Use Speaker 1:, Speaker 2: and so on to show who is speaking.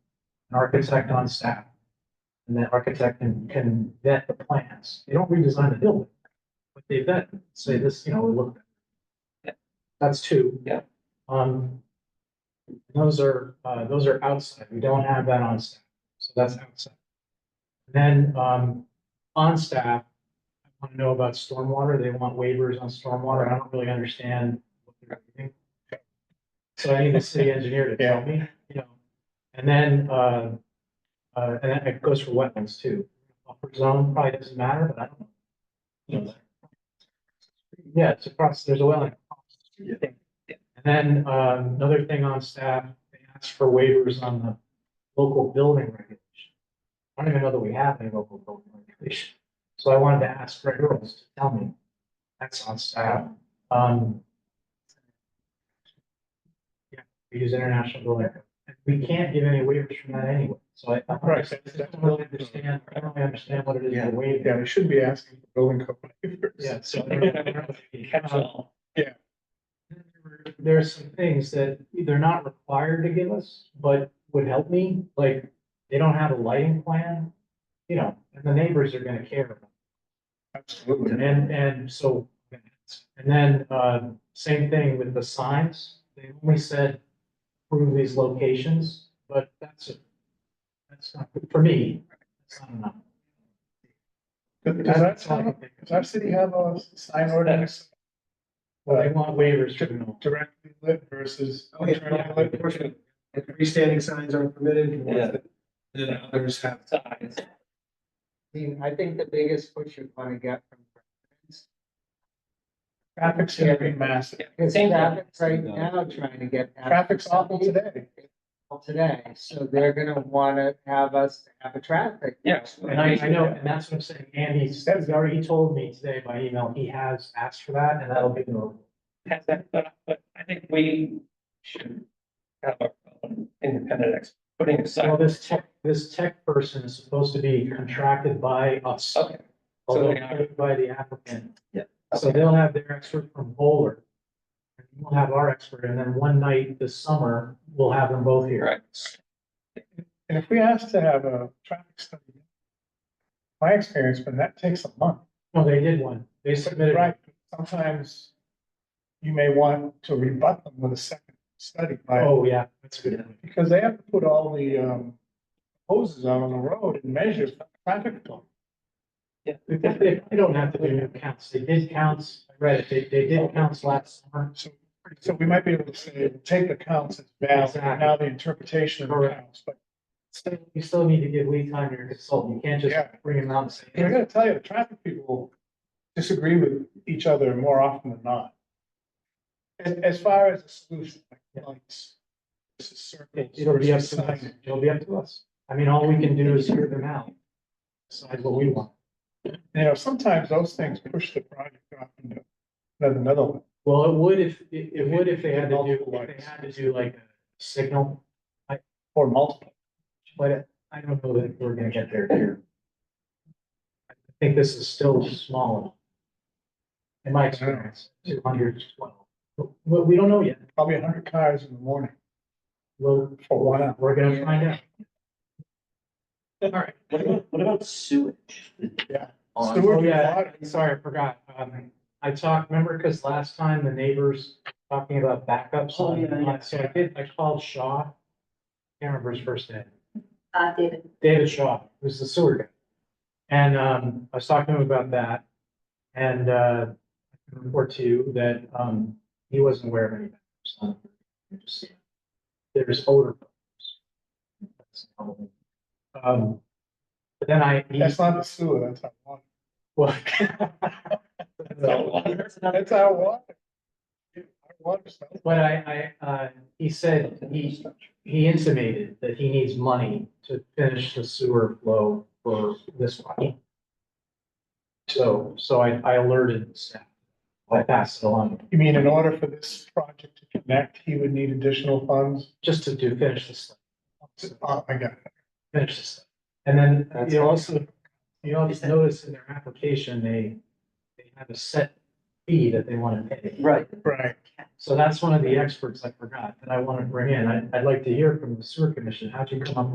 Speaker 1: an architect on staff. And that architect can, can vet the plans. They don't redesign the building. But they vet, say this, you know, look.
Speaker 2: Yeah.
Speaker 1: That's two.
Speaker 2: Yeah.
Speaker 1: Um. Those are, uh, those are outside. We don't have that on staff. So that's outside. Then, um, on staff, I want to know about stormwater. They want waivers on stormwater. I don't really understand. what they're doing. So I need the city engineer to tell me, you know, and then, uh, uh, and then it goes for wetlands too. Buffer zone probably doesn't matter, but I don't know. You know. Yeah, it's across, there's a wetland.
Speaker 2: Yeah.
Speaker 1: And then, um, another thing on staff, they asked for waivers on the local building regulation. I don't even know that we have any local building regulation. So I wanted to ask Greg Earls to tell me. That's on staff. Um. Yeah, we use international building. We can't give any waivers from that anyway, so I. I
Speaker 3: Right.
Speaker 1: just don't really understand, I don't really understand what it is
Speaker 3: Yeah.
Speaker 1: to waive.
Speaker 3: Yeah, we should be asking for building code. waivers.
Speaker 1: Yeah, so.
Speaker 2: Catch all.
Speaker 1: There are some things that they're not required to give us, but would help me, like, they don't have a lighting plan. You know, and the neighbors are gonna care about it.
Speaker 3: Absolutely.
Speaker 1: And, and so, and then, uh, same thing with the signs, they only said prove these locations, but that's, a- that's not, for me, that's not enough.
Speaker 3: Does does that sound, does our city have a sign ordinance?
Speaker 1: They
Speaker 3: Like
Speaker 1: want waivers for them.
Speaker 3: directly lit versus
Speaker 4: Oh, yeah.
Speaker 3: internally lit?
Speaker 4: And freestanding signs are permitted.
Speaker 2: Yeah.
Speaker 4: Then others have.
Speaker 2: Size.
Speaker 5: I mean, I think the biggest push you're gonna get from residents
Speaker 3: Traffic's gonna be massive.
Speaker 5: is
Speaker 2: Same thing.
Speaker 5: traffic's right now trying to get. at
Speaker 3: Traffic's awful today.
Speaker 5: Today, so they're gonna wanna have us have a traffic.
Speaker 2: Yes.
Speaker 1: And I, I know, and that's what I'm saying, Andy's, he's already he told me today by email, he has asked for that, and that'll be the rule.
Speaker 2: Has that, but, but I think we should have our own independent ex, putting
Speaker 1: Well,
Speaker 2: aside.
Speaker 1: this tech, this tech person is supposed to be contracted by us.
Speaker 2: Okay, So
Speaker 1: although
Speaker 2: they are-
Speaker 1: paid by the applicant.
Speaker 2: Yeah.
Speaker 1: So they'll have their expert from Bowler. and We'll have our expert, and then one night this summer, we'll have them both here.
Speaker 2: right.
Speaker 3: And if we ask to have a traffic study, my experience, but that takes a month.
Speaker 1: No, they did one, they submitted.
Speaker 3: Right, sometimes you may want to rebut them with a second study by,
Speaker 1: Oh, yeah, that's a good. point.
Speaker 3: because they have to put all the, um, hoses out on the road and measure traffic. flow.
Speaker 1: They, they- they don't have to do new counts, they did counts, I read it, they, they did counts last summer.
Speaker 3: So, so we might be able to say, take the counts as valid, and now the interpretation of the
Speaker 1: Correct.
Speaker 3: counts, but
Speaker 1: Still, you still need to give lead time to your consultant, you can't just
Speaker 3: Yeah.
Speaker 1: bring them out and
Speaker 3: I
Speaker 1: say.
Speaker 3: gotta tell you, the traffic people disagree with each other more often than not. As, as far as a solution, like lights, versus circles.
Speaker 1: It'll be up
Speaker 3: versus
Speaker 1: to us,
Speaker 3: signage.
Speaker 1: it'll be up to us, I mean, all we can do is hear them out. Decide what we want.
Speaker 3: You know, sometimes those things push the project off into another, another one.
Speaker 1: Well, it would if, it, it would if they had to do,
Speaker 3: Multiple
Speaker 1: if they
Speaker 3: lights.
Speaker 1: had to do like a signal,
Speaker 3: Or multiple.
Speaker 1: but I don't know that we're gonna get there here. I think this is still small. enough. In my experience, two hundred twelve, but we don't know yet,
Speaker 3: Probably a hundred cars in the morning
Speaker 1: well,
Speaker 3: for a while.
Speaker 1: we're gonna find out.
Speaker 2: What about, what about sewage?
Speaker 3: Yeah.
Speaker 2: On-
Speaker 3: Sewer
Speaker 1: Oh,
Speaker 3: and
Speaker 1: yeah,
Speaker 3: water.
Speaker 1: sorry, I forgot, um, I talked, remember, cause last time the neighbors talking about backups.
Speaker 2: Oh, yeah, yeah.
Speaker 1: So I did, I called Shaw, can't remember his first name.
Speaker 6: Uh, David,
Speaker 1: David Shaw, who's the sewer guy. And um, I was talking to him about that. And uh, I can report to you that um, he wasn't aware of any. backups on it. Just- There's odor. problems. That's the problem. Um, but then I. he-
Speaker 3: That's not the sewer, that's our water.
Speaker 1: well,
Speaker 2: So, there's another-
Speaker 3: That's our water. Yeah, Our water smells.
Speaker 1: But I, I, uh, he said, he, he intimated that he needs money to finish the sewer flow for this one. So, so I, I alerted the staff. I passed it along,
Speaker 3: You mean in order for this project to connect, he would need additional funds?
Speaker 1: just to do, finish this,
Speaker 3: Oh, I got it.
Speaker 1: finish this. And then
Speaker 4: That's
Speaker 1: you also, you also notice in their application, they, they have a set fee that they want to pay.
Speaker 2: Right,
Speaker 3: Right.
Speaker 1: So that's one of the experts I forgot that I want to bring in. I, I'd like to hear from the sewer commission. How'd you come up